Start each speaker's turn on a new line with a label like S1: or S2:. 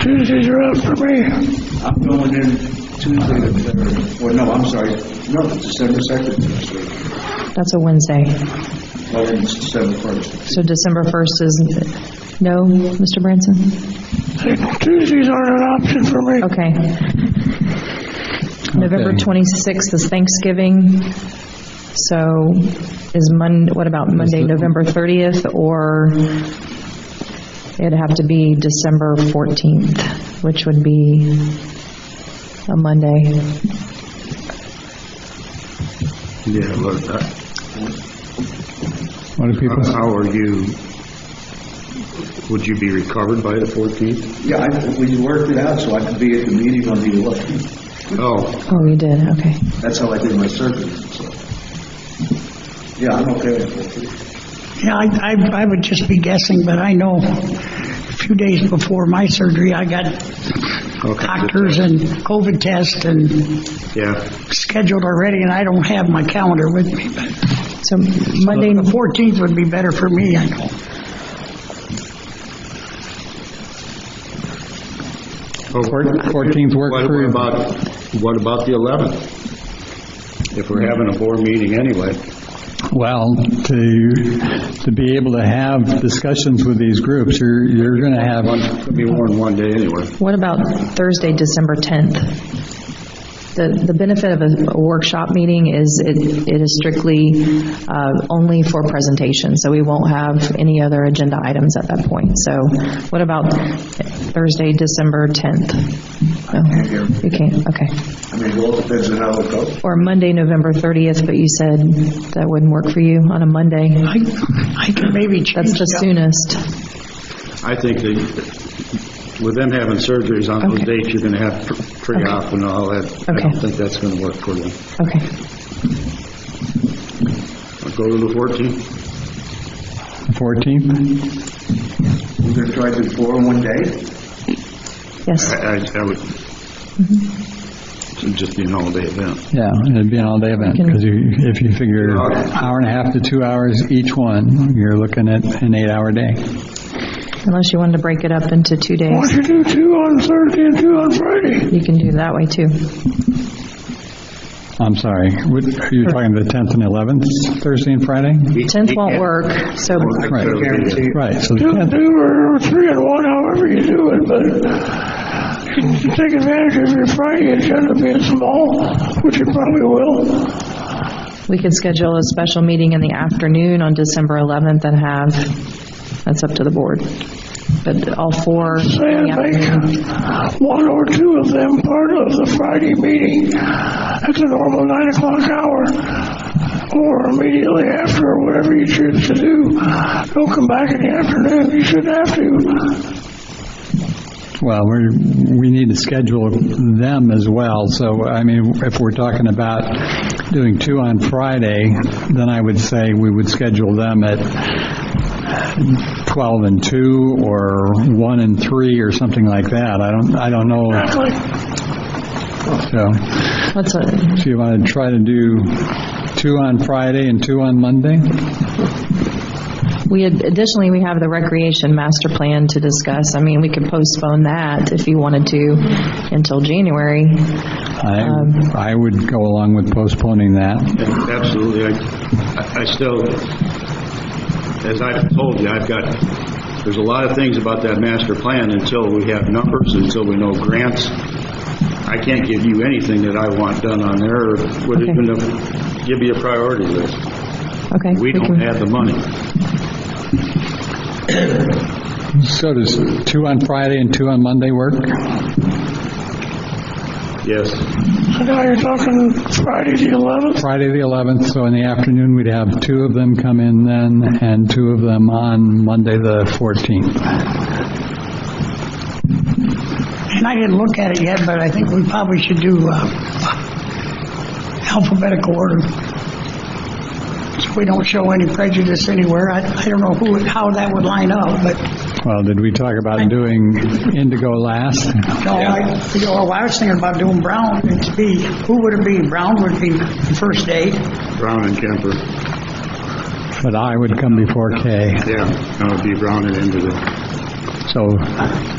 S1: Tuesdays are out for me.
S2: I'm going in Tuesday the third, well, no, I'm sorry, no, December second next week,
S3: That's a Wednesday.
S2: well, then it's December first.
S3: So December 1st is, no, Mr. Branson?
S1: Tuesdays aren't an option for me.
S3: Okay. November 26th is Thanksgiving, so is Mon, what about Monday, November 30th? Or it'd have to be December 14th, which would be a Monday.
S4: Yeah, but uh,
S5: What do people,
S4: how are you, would you be recovered by the 14th?
S2: Yeah, I, we worked it out so I could be at the meeting on the eleventh,
S4: Oh,
S3: Oh, you did, okay.
S2: that's how I did my surgery, so. Yeah, I'm okay with it.
S1: Yeah, I, I, I would just be guessing, but I know a few days before my surgery, I got
S4: Okay.
S1: doctors and COVID test and
S4: yeah,
S1: scheduled already, and I don't have my calendar with me, but
S3: So Monday,
S1: the 14th would be better for me, I know.
S5: Fourteenth work
S4: Oh, What-
S5: for
S4: What
S5: you.
S4: about, what about the 11th? If we're having a board meeting anyway,
S5: well, to, to be able to have discussions with these groups, you're, you're going to
S4: one,
S5: have,
S4: it'll be more than one day anyway.
S3: What about Thursday, December 10th? The, the benefit of a a workshop meeting is it it is strictly uh, only for presentation, so we won't have any other agenda items at that point. So what about Thursday, December 10th? No, You can't, okay.
S2: I mean, it all depends on how it goes.
S3: Or Monday, November 30th, but you said that wouldn't work for you on a Monday.
S1: I, I could maybe change
S3: That's the
S1: it up.
S3: soonest.
S4: I think that with them having surgeries on those
S3: Okay.
S4: dates, you're going to have tr- tree off and all that. I
S3: Okay.
S4: don't think that's going to work for them.
S3: Okay.
S4: Go to the 14th?
S5: fourteenth?
S2: We're gonna try to do four in one day?
S3: Yes,
S4: I, I- I would, it'd just be an all-day event.
S5: Yeah, it'd be an all-day event, because if you figure
S4: Okay.
S5: hour and a half to two hours each one, you're looking at an eight-hour day.
S3: unless you wanted to break it up into two
S1: Why
S3: days,
S1: don't you do two on Thursday and two on Friday?
S3: you can do it that way, too.
S5: I'm sorry, what, are you talking the 10th and 11th, Thursday and Friday?
S3: 10th won't work, so
S4: I
S5: Right.
S4: guarantee you.
S5: Right, so the
S1: Do,
S5: 10th,
S1: do or three and one, however you do it, but you can take advantage of your Friday agenda being small, which you probably will.
S3: we could schedule a special meeting in the afternoon on December 11th and have, that's up to the board, but all four. in
S1: Saying
S3: the afternoon.
S1: make one or two of them part of the Friday meeting at the normal nine o'clock hour, or immediately after, or whatever you choose to do. Don't come back in the afternoon, you shouldn't have to.
S5: well, we're, we need to schedule them as well, so, I mean, if we're talking about doing two on Friday, then I would say we would schedule them at 12 and 2, or 1 and 3, or something like that. I don't, I don't know,
S1: Like,
S5: so.
S3: What's, a-
S5: So you want to try to do two on Friday and two on Monday?
S3: we, had- additionally, we have the recreation master plan to discuss. I mean, we could postpone that if you wanted to until January.
S5: I, I would go along with postponing that.
S4: Absolutely. I- I I still, as I've told you, I've got, there's a lot of things about that master plan until we have numbers, until we know grants. I can't give you anything that I want done on there, or would
S3: Okay.
S4: even give you a priority list.
S3: Okay.
S4: We don't
S3: can-
S4: have the money.
S5: So does two on Friday and two on Monday work?
S4: Yes.
S1: so now you're talking Friday the eleventh?
S5: Friday the 11th, so in the afternoon, we'd have two of them come in then, and two of them on Monday the 14th.
S1: And I didn't look at it yet, but I think we probably should do uh, alphabetical order. So we don't show any prejudice anywhere. I, I don't know who, how that would line up, but,
S5: Well, did we talk about doing Indigo last?
S1: no, I, you know, I was thinking about doing Brown, it'd be, who would it be? Brown would be the first day.
S4: Brown and Kemper.
S5: But I would come before K.
S4: Yeah, that would be Brown and Indigo.
S5: So